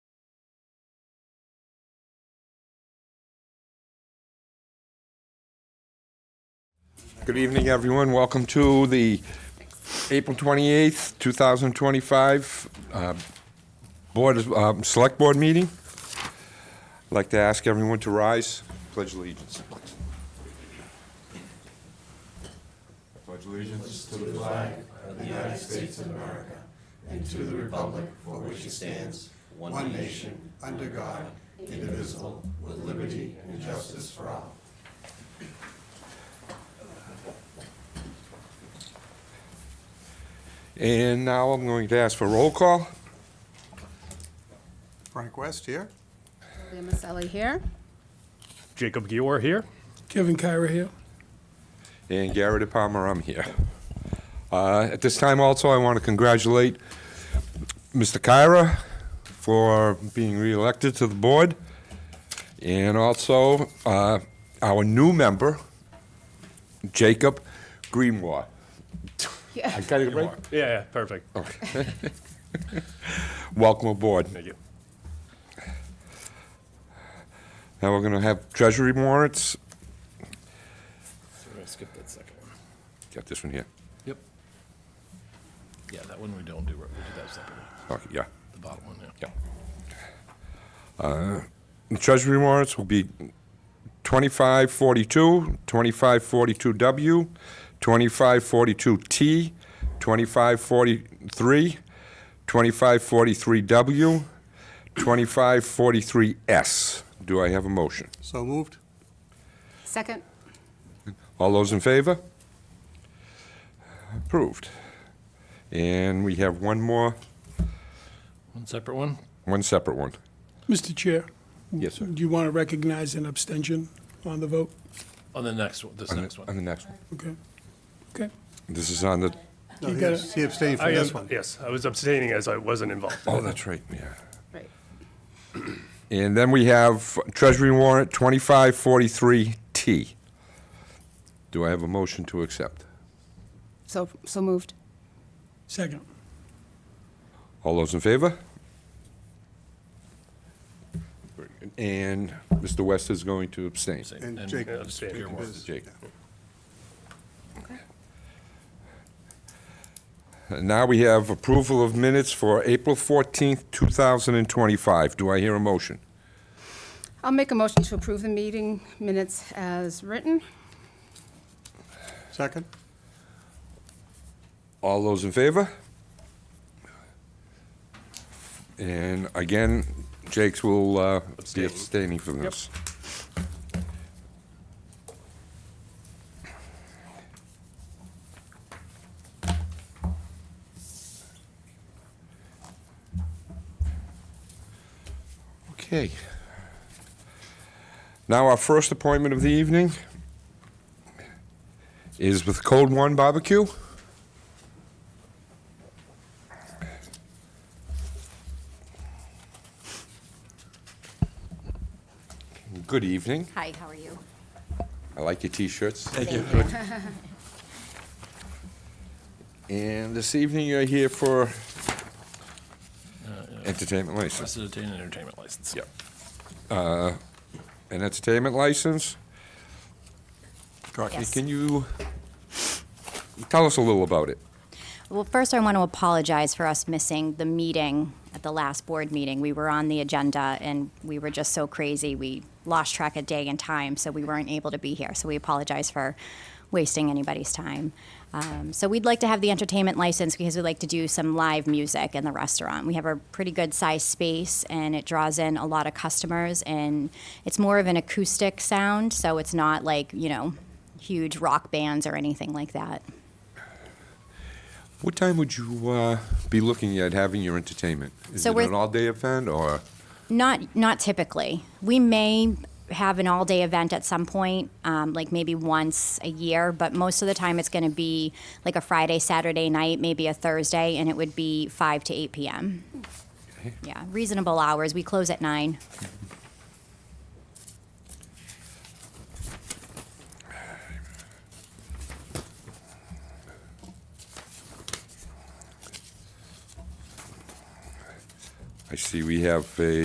Good evening, everyone. Welcome to the April 28th, 2025 uh, Board, of- um, Select Board meeting. I'd like to ask everyone to rise, pledge allegiance. Pledge allegiance to the flag And now I'm going to ask for roll call. Frank West here. Julia Maselli here. Jacob Gior here. Kevin Kyra here. and Garrett Palmer, I'm here. Uh, At this time also, I want to congratulate Mr. Kyra for being reelected to the board, and also uh, our new member, Jacob Greenwald. I got it right? Yeah, yeah, perfect. Welcome aboard. Thank you. Now we're going to have treasury warrants. We're gonna skip that second one. Got this one here. Yep. Yeah, that one we don't do, right? we do that separately, Okay, yeah. the bottom one, yeah. Yeah. Uh, The Treasury warrants will be 2542, 2542W, 2542T, 2543, 2543W, 2543S. Do I have a motion? So moved. Second, All those in favor? Approved. And we have one more, One separate one? one separate one. Mr. Chair, Yes, sir. do you want to recognize an abstention on the vote? On the next one, this On next the- one. on the next one. Okay. Okay. This is on the, No, You he got abs- he abstained I from this am- one. Yes, I was abstaining as I wasn't involved. oh, that's right, yeah. right. And then we have Treasury warrant 2543T. Do I have a motion to accept? So, so moved. Second. All those in favor? And Mr. West is going to abstain. Same. And Jake- Yeah, abstaining. Spear one. Jake. Okay. And Now we have approval of minutes for April 14th, 2025. Do I hear a motion? I'll make a motion to approve the meeting minutes as written. Second? All those in favor? And again, Jake's will uh, be Abstain. abstaining from this. Okay. Now, our first appointment of the evening is with Cold One Barbecue. Good evening. Hi, how are you? I like your t-shirts. Thank you. And this evening, you're here for entertainment license. Request to obtain an entertainment license. Yep. An entertainment license? Courtney, Yes. Can you tell us a little about it? Well, first, I want to apologize for us missing the meeting at the last board meeting. We were on the agenda, and we were just so crazy, we lost track of day and time, so we weren't able to be here. So we apologize for wasting anybody's time. Um, So we'd like to have the entertainment license because we like to do some live music in the restaurant. We have a pretty good-sized space, and it draws in a lot of customers, and it's more of an acoustic sound, so it's not like, you know, huge rock bands or anything like that. What time would you uh, be looking at having your entertainment? Is So it we're- an all-day event, or? Not not typically. We may have an all day event at some point, um, like maybe once a year, but most of the time it's going to be like a Friday, Saturday night, maybe a Thursday, and it would be five to eight p.m. Yeah, reasonable hours. We close at nine. I see we have a